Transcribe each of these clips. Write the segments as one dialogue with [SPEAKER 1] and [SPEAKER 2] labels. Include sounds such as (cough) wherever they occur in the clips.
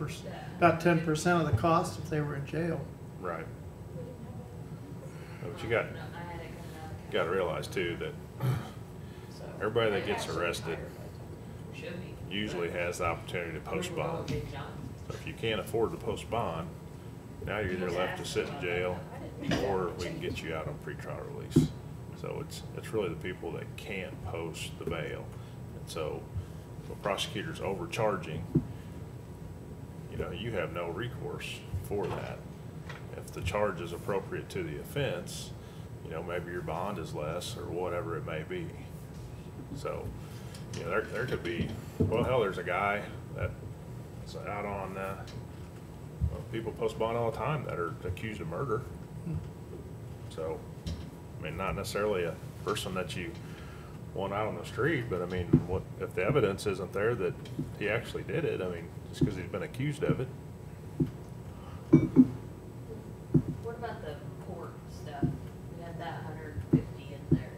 [SPEAKER 1] pers- about ten percent of the cost if they were in jail.
[SPEAKER 2] Right. But you got, got to realize too that everybody that gets arrested usually has the opportunity to post bond. So if you can't afford to post bond, now you're either left to sit in jail or we can get you out on pretrial release. So it's, it's really the people that can't post the bail. And so if a prosecutor's overcharging, you know, you have no recourse for that. If the charge is appropriate to the offense, you know, maybe your bond is less or whatever it may be. So, you know, there, there could be, well, hell, there's a guy that's out on, uh, well, people post bond all the time that are accused of murder. So, I mean, not necessarily a person that you want out on the street, but I mean, what, if the evidence isn't there that he actually did it, I mean, just because he's been accused of it.
[SPEAKER 3] What about the court stuff? We had that hundred and fifty in there.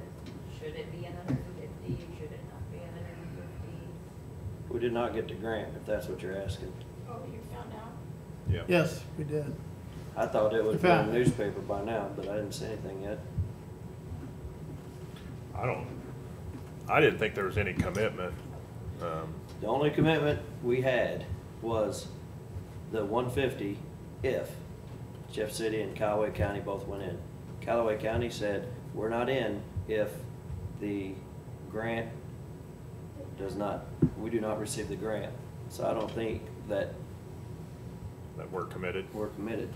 [SPEAKER 3] Should it be hundred and fifty? Should it not be hundred and fifty?
[SPEAKER 4] We did not get the grant, if that's what you're asking.
[SPEAKER 5] Oh, you found out?
[SPEAKER 2] Yeah.
[SPEAKER 1] Yes, we did.
[SPEAKER 4] I thought it would have
[SPEAKER 1] Found
[SPEAKER 4] been
[SPEAKER 1] it.
[SPEAKER 4] newspaper by now, but I didn't see anything yet.
[SPEAKER 2] I don't, I didn't think there was any commitment, um,
[SPEAKER 4] The only commitment we had was the one fifty if Jeff City and Callaway County both went in. Callaway County said, we're not in if the grant does not, we do not receive the grant. So I don't think that
[SPEAKER 2] that we're committed.
[SPEAKER 4] we're committed.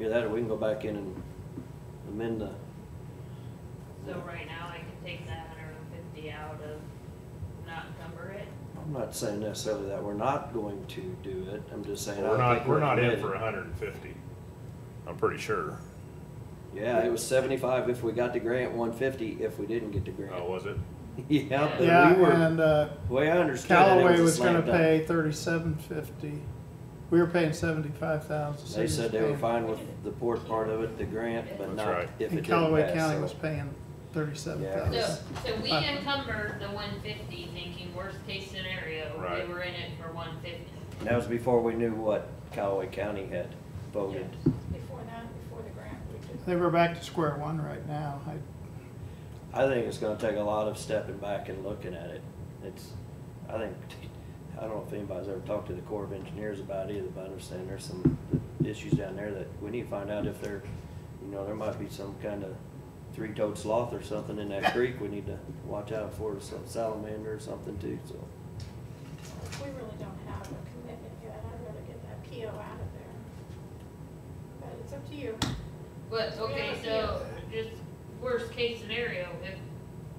[SPEAKER 4] Either that or we can go back in and amend the,
[SPEAKER 3] So right now I can take that hundred and fifty out of, not number it?
[SPEAKER 4] I'm not saying necessarily that we're not going to do it, I'm just saying. I
[SPEAKER 2] We're
[SPEAKER 4] don't
[SPEAKER 2] not,
[SPEAKER 4] think
[SPEAKER 2] we're not in
[SPEAKER 4] committed.
[SPEAKER 2] for hundred and fifty, I'm pretty sure.
[SPEAKER 4] Yeah, it was seventy-five if we got the grant, one fifty if we didn't get the
[SPEAKER 2] Oh,
[SPEAKER 4] grant.
[SPEAKER 2] was it?
[SPEAKER 4] (laughs) Yeah,
[SPEAKER 1] Yeah,
[SPEAKER 4] but we
[SPEAKER 1] and,
[SPEAKER 4] were,
[SPEAKER 1] uh,
[SPEAKER 4] way I understood it,
[SPEAKER 1] Callaway
[SPEAKER 4] it was a
[SPEAKER 1] was gonna
[SPEAKER 4] slam dunk.
[SPEAKER 1] pay thirty-seven fifty. We were paying seventy-five thousand.
[SPEAKER 4] They said they were fine with the port part of it, the grant, but
[SPEAKER 2] That's
[SPEAKER 4] not
[SPEAKER 2] right.
[SPEAKER 4] if it
[SPEAKER 1] And
[SPEAKER 4] didn't
[SPEAKER 1] Callaway
[SPEAKER 4] pass,
[SPEAKER 1] County
[SPEAKER 4] so-
[SPEAKER 1] was paying thirty-seven
[SPEAKER 3] So,
[SPEAKER 1] thousand.
[SPEAKER 3] so we
[SPEAKER 1] Uh.
[SPEAKER 3] encumber the one fifty thinking worst case scenario,
[SPEAKER 2] Right.
[SPEAKER 3] we were in it for one fifty.
[SPEAKER 4] And That was before we knew what Callaway County had voted.
[SPEAKER 5] Before that, before the grant, we did.
[SPEAKER 1] They were back to square one right now. I,
[SPEAKER 4] I think it's gonna take a lot of stepping back and looking at it. It's, I think, I don't know if anybody's ever talked to the Corps of Engineers about it either, but I understand there's some issues down there that we need to find out if there, you know, there might be some kind of three-toed sloth or something in that creek we need to watch out for, some salamander or something too, so.
[SPEAKER 5] We really don't have a commitment yet. I'd rather get that PO out of there. But it's up to you.
[SPEAKER 3] But,
[SPEAKER 5] Yeah,
[SPEAKER 3] okay,
[SPEAKER 5] yeah.
[SPEAKER 3] so, just worst case scenario, if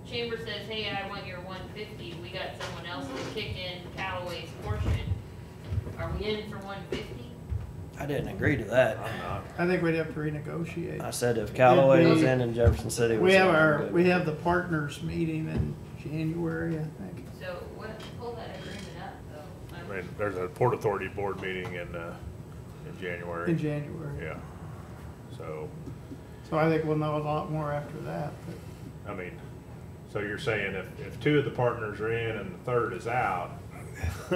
[SPEAKER 3] Chamber says, hey, I want your one fifty, we got someone else to kick in Callaway's portion, are we in for one fifty?
[SPEAKER 4] I didn't agree to that.
[SPEAKER 2] I'm not.
[SPEAKER 1] I think we'd have to renegotiate.
[SPEAKER 4] I said if Callaway was
[SPEAKER 1] we-
[SPEAKER 4] in and Jefferson City was
[SPEAKER 1] We
[SPEAKER 4] in.
[SPEAKER 1] have our,
[SPEAKER 4] I'm
[SPEAKER 1] we
[SPEAKER 4] good.
[SPEAKER 1] have the partners meeting in January, I think.
[SPEAKER 3] So, what, pull that agreement up, though.
[SPEAKER 2] I
[SPEAKER 3] I'm-
[SPEAKER 2] mean, there's a Port Authority Board meeting in, uh, in
[SPEAKER 1] In
[SPEAKER 2] January.
[SPEAKER 1] January.
[SPEAKER 2] Yeah. So,
[SPEAKER 1] So I think we'll know a lot more after that, but
[SPEAKER 2] I mean, so you're saying if, if two of the partners are in and the third is out, (laughs)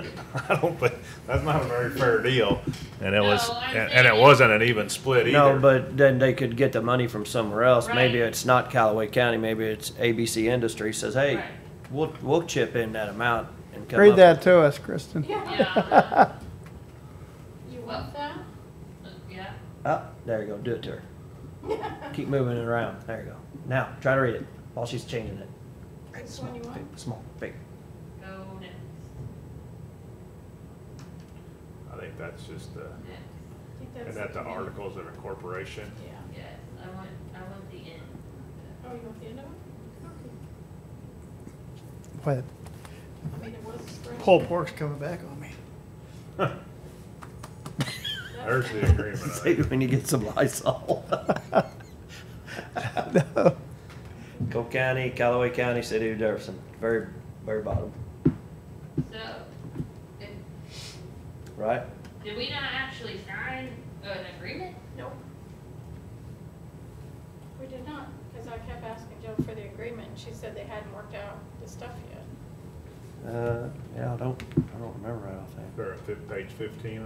[SPEAKER 2] I don't think, that's not a very fair deal. And it was,
[SPEAKER 3] No, I'm
[SPEAKER 2] and and it
[SPEAKER 3] saying-
[SPEAKER 2] wasn't an even split either.
[SPEAKER 4] No, but then they could get the money from somewhere else. Maybe
[SPEAKER 3] Right.
[SPEAKER 4] it's not Callaway County, maybe it's ABC Industry says, hey,
[SPEAKER 3] Right.
[SPEAKER 4] we'll, we'll chip in that amount and come
[SPEAKER 1] read
[SPEAKER 4] up-
[SPEAKER 1] that to us, Kristen.
[SPEAKER 3] Yeah,
[SPEAKER 5] (laughs) You want that?
[SPEAKER 3] uh, yeah,
[SPEAKER 4] Oh, there you go, do it to her. Keep moving it around, there you go. Now, try to read it while she's changing it.
[SPEAKER 5] This one you want?
[SPEAKER 4] Big, Small, big.
[SPEAKER 3] go next,
[SPEAKER 2] I think that's just, uh,
[SPEAKER 3] next,
[SPEAKER 5] I think that's-
[SPEAKER 2] and that the articles of incorporation.
[SPEAKER 5] Yeah.
[SPEAKER 3] yes, I want, I want the end.
[SPEAKER 5] Oh, you want the end of it? Okay.
[SPEAKER 1] But
[SPEAKER 5] I mean, it was. spread.
[SPEAKER 1] pulled pork's coming back on me.
[SPEAKER 2] There's the agreement.
[SPEAKER 4] (laughs)
[SPEAKER 2] I
[SPEAKER 4] Say
[SPEAKER 2] think.
[SPEAKER 4] when you get some
[SPEAKER 1] (laughs)
[SPEAKER 4] Lysol. Cole County, Callaway County, City of Jefferson, very, very bottom,
[SPEAKER 3] So, if,
[SPEAKER 4] right?
[SPEAKER 3] did we not actually sign an agreement?
[SPEAKER 5] Nope. We did not, because I kept asking Jill for the agreement, and she said they hadn't worked out the stuff yet.
[SPEAKER 4] Uh, yeah, I don't, I don't remember right off the
[SPEAKER 2] They're at fif- page fifteen